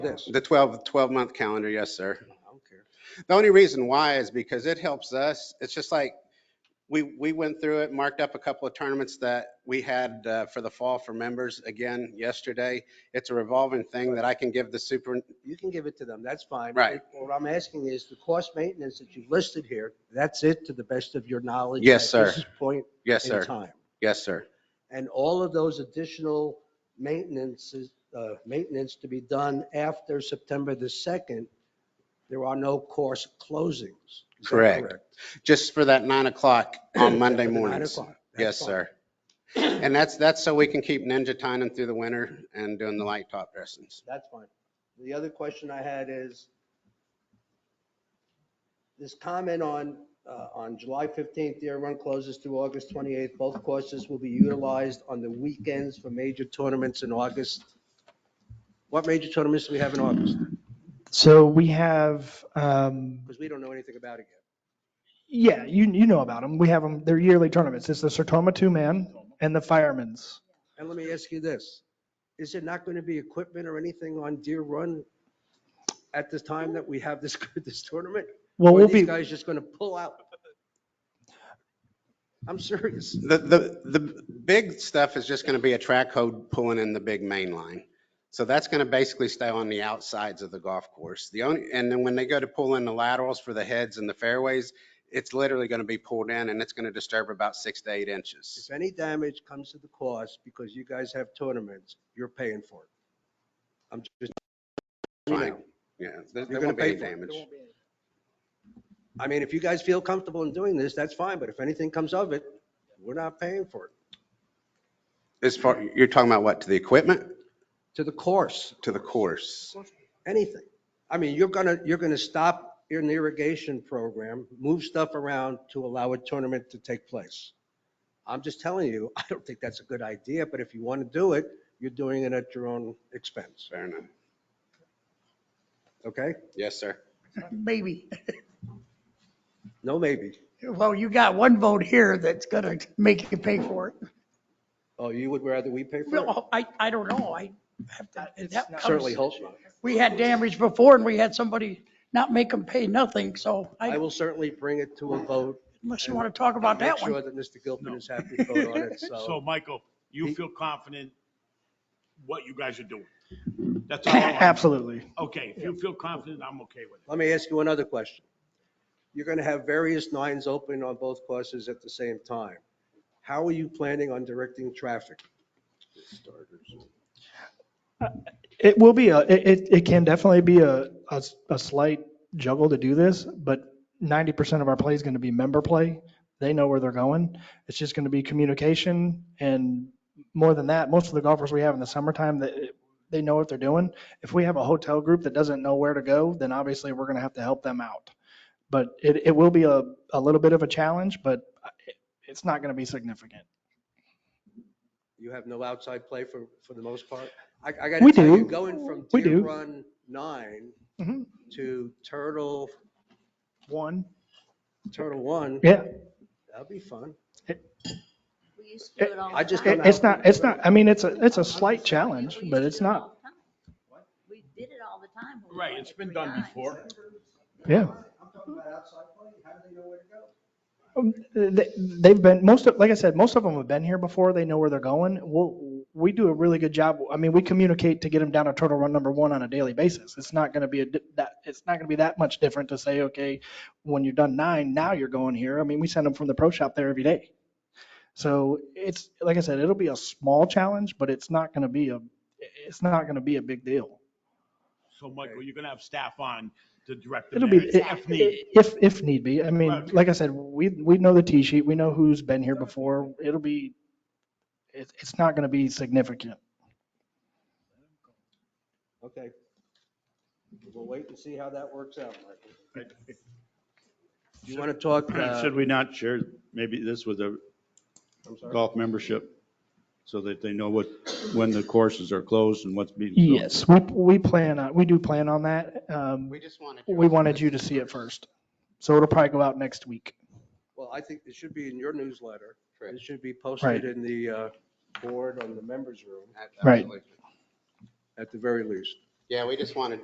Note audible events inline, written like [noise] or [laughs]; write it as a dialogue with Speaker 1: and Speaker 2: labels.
Speaker 1: The the 12, 12-month calendar, yes, sir. The only reason why is because it helps us. It's just like, we, we went through it, marked up a couple of tournaments that we had uh, for the fall for members again yesterday. It's a revolving thing that I can give the super,
Speaker 2: You can give it to them, that's fine.
Speaker 1: Right.
Speaker 2: What I'm asking is the cost maintenance that you've listed here, that's it to the best of your knowledge?
Speaker 1: Yes,
Speaker 2: at
Speaker 1: sir.
Speaker 2: this Point
Speaker 1: yes,
Speaker 2: in
Speaker 1: sir.
Speaker 2: time.
Speaker 1: Yes, sir.
Speaker 2: And all of those additional maintenances, uh, maintenance to be done after September the 2nd, there are no course closings. Is that
Speaker 1: Correct. Just for that nine o'clock
Speaker 2: [coughs]
Speaker 1: on Monday
Speaker 2: For the nine
Speaker 1: mornings.
Speaker 2: o'clock. That's
Speaker 1: Yes,
Speaker 2: fine.
Speaker 1: sir. And that's, that's so we can keep ninja tying through the winter and doing the light top dressings.
Speaker 2: That's fine. The other question I had is this comment on, uh, on July 15th, the air run closes through August 28th. Both courses will be utilized on the weekends for major tournaments in August. What major tournaments do we have in August?
Speaker 3: So we have, um,
Speaker 2: Because we don't know anything about it yet.
Speaker 3: yeah, you, you know about them. We have them, they're yearly tournaments. It's the Sertoma Two Man and the Firemen's.
Speaker 2: And let me ask you this. Is there not going to be equipment or anything on Deer Run at this time that we have this, [laughs] this tournament?
Speaker 3: Well,
Speaker 2: Or
Speaker 3: we'll
Speaker 2: are these
Speaker 3: be,
Speaker 2: guys just going to pull out? I'm serious.
Speaker 1: The, the, the big stuff is just going to be a track hole pulling in the big main line. So that's going to basically stay on the outsides of the golf course. The only, and then when they go to pull in the laterals for the heads and the fairways, it's literally going to be pulled in and it's going to disturb about six to eight inches.
Speaker 2: If any damage comes to the course because you guys have tournaments, you're paying for it. I'm just, you
Speaker 1: Fine.
Speaker 2: know,
Speaker 1: Yeah, there there
Speaker 2: You're gonna
Speaker 1: won't be
Speaker 2: pay
Speaker 1: any
Speaker 2: for it.
Speaker 1: damage.
Speaker 2: I mean, if you guys feel comfortable in doing this, that's fine, but if anything comes of it, we're not paying for it.
Speaker 1: As far, you're talking about what, to the equipment,
Speaker 2: To the course,
Speaker 1: to the course?
Speaker 2: anything. I mean, you're gonna, you're gonna stop your irrigation program, move stuff around to allow a tournament to take place. I'm just telling you, [laughs] I don't think that's a good idea, but if you want to do it, you're doing it at your own expense,
Speaker 1: Fair enough.
Speaker 2: okay?
Speaker 1: Yes, sir.
Speaker 4: Maybe.
Speaker 2: No maybe.
Speaker 4: [laughs] Well, you got one vote here that's gonna make you pay for it.
Speaker 2: Oh, you would rather we pay for it?
Speaker 4: Well, I, I don't know. I have to, that comes-
Speaker 2: Certainly hope not.
Speaker 4: We had damage before and we had somebody not make them pay nothing, so
Speaker 2: I
Speaker 4: I,
Speaker 2: will certainly bring it to a vote.
Speaker 4: unless you want to talk about that
Speaker 2: Make sure
Speaker 4: one.
Speaker 2: that Mr. Gilpin is happy to vote on it,
Speaker 5: So,
Speaker 2: so.
Speaker 5: Michael,
Speaker 2: Oh. He-
Speaker 5: you feel confident what you guys are doing? That's all. I-
Speaker 3: [laughs] absolutely.
Speaker 5: Okay, if you feel confident, I'm okay with it.
Speaker 2: Let me ask you another question. You're going to have various nines open on both courses at the same time. How are you planning on directing traffic?
Speaker 3: It will be, a it, it- it can definitely be a, a s- a slight juggle to do this, but 90% of our play is going to be member play. They know where they're going. It's just going to be communication and more than that, most of the golfers we have in the summertime, they, they know what they're doing. If we have a hotel group that doesn't know where to go, then obviously we're going to have to help them out. But it, it will be a, a little bit of a challenge, but it- it's not going to be significant.
Speaker 2: You have no outside play for, for the most part? I, I got to
Speaker 3: We
Speaker 2: tell you,
Speaker 3: do.
Speaker 2: going from
Speaker 3: We
Speaker 2: Deer
Speaker 3: do.
Speaker 2: Run 9
Speaker 3: Mhm.
Speaker 2: to Turtle,
Speaker 3: One,
Speaker 2: Turtle 1,
Speaker 3: yeah.
Speaker 2: that'll be fun.
Speaker 6: We used
Speaker 3: Eh,
Speaker 6: to do it all.
Speaker 2: I
Speaker 6: the
Speaker 2: just
Speaker 6: time.
Speaker 3: It- It's not, it's not, I mean, it's a, it's a slight challenge,
Speaker 6: We used
Speaker 3: but
Speaker 6: to
Speaker 3: it's
Speaker 6: do it
Speaker 3: not,
Speaker 6: all the time. We did it all the time. when we
Speaker 5: Right,
Speaker 6: won
Speaker 5: it's
Speaker 6: it
Speaker 5: been
Speaker 6: three
Speaker 5: done
Speaker 6: times.
Speaker 5: before.
Speaker 3: yeah.
Speaker 2: I'm talking about outside play. How do they know where to go?
Speaker 3: Um, they- They've been, most of, like I said, most of them have been here before. They know where they're going. We'll, we do a really good job. I mean, we communicate to get them down to turtle run number one on a daily basis. It's not going to be a, di- that, it's not going to be that much different to say, okay, when you're done nine, now you're going here. I mean, we send them from the pro shop there every day. So it's, like I said, it'll be a small challenge, but it's not going to be a, it's not going to be a big deal.
Speaker 5: So, Michael, you're gonna have staff on to direct them
Speaker 3: It'll be,
Speaker 5: there if needed.
Speaker 3: if, if need be. I mean,
Speaker 5: Right.
Speaker 3: like I said, we, we know the T sheet, we know who's been here before. It'll be, it's, it's not going to be significant.
Speaker 2: Okay. We'll wait and see how that works out, Michael. Do you want to talk, uh,
Speaker 7: [clears throat] Should we not share maybe this with the
Speaker 2: I'm sorry,
Speaker 7: golf membership so that they know what, when the courses are closed and what's being? built?
Speaker 3: Yes, we, we plan on, we do plan on that. Um,
Speaker 1: We just wanted.
Speaker 3: we wanted you to see it first. So it'll probably go out next week.
Speaker 2: well, I think it should be in your newsletter.
Speaker 1: Correct.
Speaker 2: It should be
Speaker 3: Right.
Speaker 2: posted in the uh, board on the members room
Speaker 3: Right.
Speaker 1: Absolutely.
Speaker 2: at the very least.
Speaker 1: Yeah, we just wanted